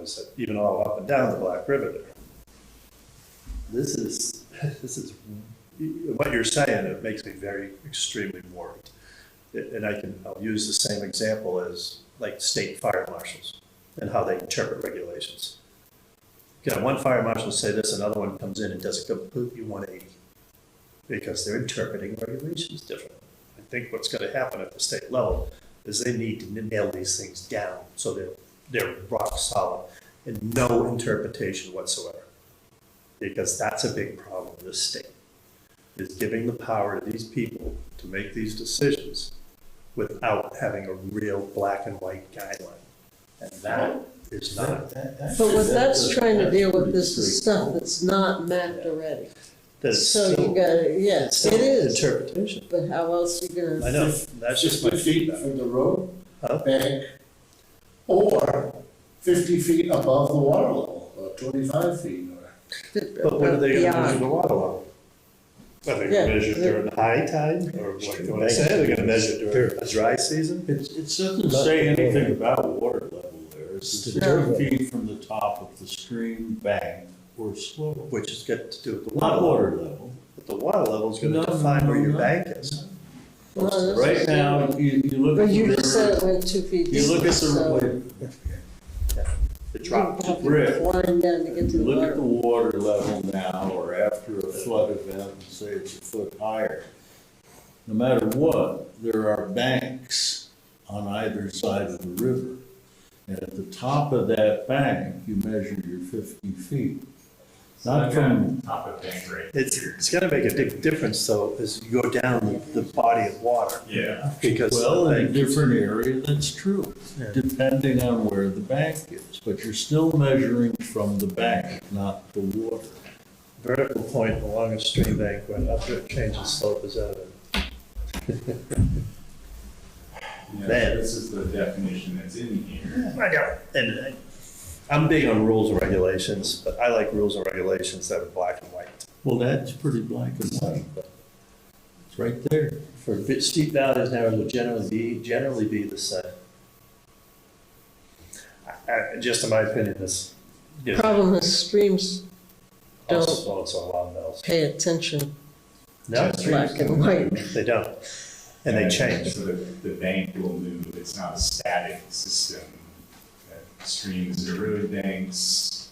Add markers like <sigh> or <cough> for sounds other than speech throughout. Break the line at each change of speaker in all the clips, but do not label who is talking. was even all up and down the Black River there. This is, <laughs> this is, what you're saying, it makes me very extremely worried. And I can, I'll use the same example as like state fire marshals and how they interpret regulations. You know, one fire marshal say this, another one comes in and does a completely one eighty because they're interpreting regulations differently. I think what's gonna happen at the state level is they need to nail these things down so they're, they're rock solid and no interpretation whatsoever. Because that's a big problem in this state, is giving the power to these people to make these decisions without having a real black and white guideline. And that is not,
But what that's trying to deal with is the stuff that's not mapped already.
that's
So
still.
you gotta,
it's
yes,
still
it is,
Interpretation.
but how else you
I
gonna,
know, that's just my
Fifty feet
feedback.
from the road
Huh?
bank, or fifty feet above the water level, or twenty-five feet, or.
But when are they gonna measure
beyond,
the water level? Are they
Yeah.
gonna measure during high tide, or what, you wanna say, they're gonna measure during the dry season?
It, it doesn't say anything about water level there. It's
the dirt
ten feet from the top of the stream bank or slope.
Which has got to do with the water
Not
level,
water level.
but the water level's
No,
gonna
no,
define where
no,
your
no.
bank is.
Well, that's-
Right now, you, you look
but
at the
you just said
river,
it went two feet deep,
you look at
so.
the,
The
you
drop,
have to
Rick.
Climb down to get to the
you look at the
water.
water level now or after a flood event, and say it's a foot higher. No matter what, there are banks on either side of the river. And at the top of that bank, you measure your fifty feet. Not from
Top of bank rate.
it's, it's gonna make a big difference though, as you go down the body of water,
Yeah.
because. the
Well, in a
bank-
different area, that's true,
Yeah.
depending on where the bank is, but you're still measuring from the bank, not the water.
vertical point along a stream bank when upward change in slope is evident.
Yeah,
Man.
This is the definition that's in here.
I know, and I- I'm big on rules and regulations, but I like rules and regulations that are black and white.
Well, that's pretty black and white, but it's right there.
For bit- steep valleys, narrows will generally be, generally be the same. I- I- Just in my opinion, this, you know,
Problem is streams don't-
also, also along those.
pay attention,
No,
black and white.
they don't, and they change.
So the, the bank will move, it's not a static system. Uh, Streams erode banks,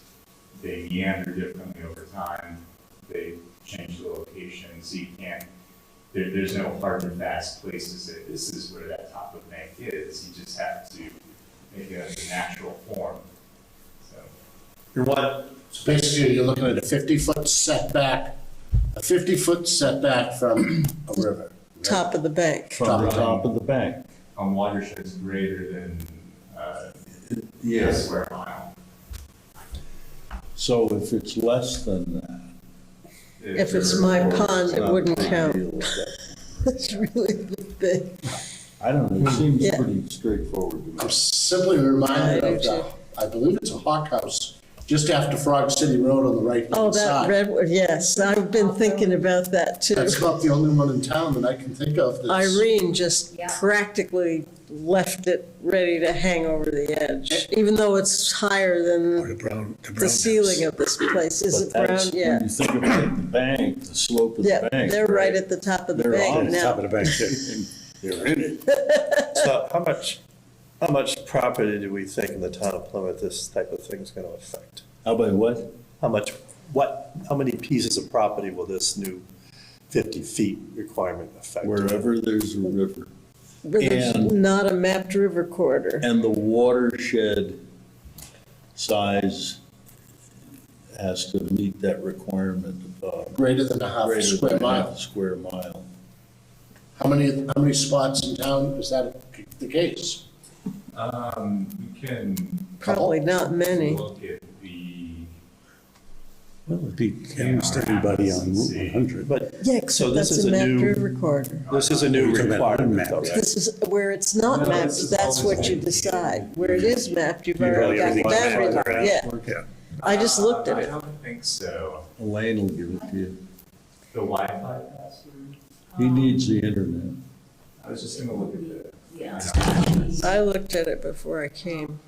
they meander differently over time, they change the location, so you can't, there, there's no hard and fast places that this is where that top of bank is, you just have to make it a natural form, so.
And what,
So basically, you're looking at a fifty-foot setback, a fifty-foot setback from a river. right?
top of the bank.
From the top of the bank.
on watersheds greater than, uh,
Yes.
square mile.
So if it's less than that.
If it's my pond, it wouldn't count. <laughs> It's really big.
I don't know, it seems
Yeah.
pretty straightforward to me.
I'm simply reminded of the, I believe it's a hawk house, just after Frog City Road on the right
Oh,
hand
that
side.
redwood, yes, I've been thinking about that too.
That's about the only one in town that I can think of that's.
Irene just
Yeah.
practically left it ready to hang over the edge, even though it's higher than Oh, the ceiling of this place. Is
But
it brown?
that's, when
Yeah.
you think about the bank, the slope of
Yeah,
the bank.
they're right at the top of the
They're on
bank
the
now.
<laughs> They're in it.
so how much, how much property do we think in the town of Plymouth this type of thing's gonna affect?
How about what?
How much, what, how many pieces of property will this new fifty feet requirement affect?
Wherever there's a river.
But there's
And-
not a mapped river corridor.
And the watershed size has to meet that requirement of. uh,
Greater than a half
greater
square
than half
mile.
Square mile.
How many, how many spots in town is that the case?
Um, you can
Probably not many.
look at the.
Well, it'd be almost everybody on Route one hundred.
But,
Yeah,
So
except
this
that's
is
a
a
mapped
new-
river corridor.
this is a new
We're talking about
requirement though,
unmapped.
right?
This is where it's not
No,
mapped,
this is
that's what
always
you
been.
decide. Where it is mapped, you've
Really,
already got the
everything's
boundary
mapped
line,
around.
yeah. I just looked at
Uh, I
it.
don't think so.
Elaine will give it to you.
The Wi-Fi password,
He needs the internet.
I was just gonna look at the.
Yes.
I looked at it before I came.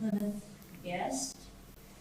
Yes.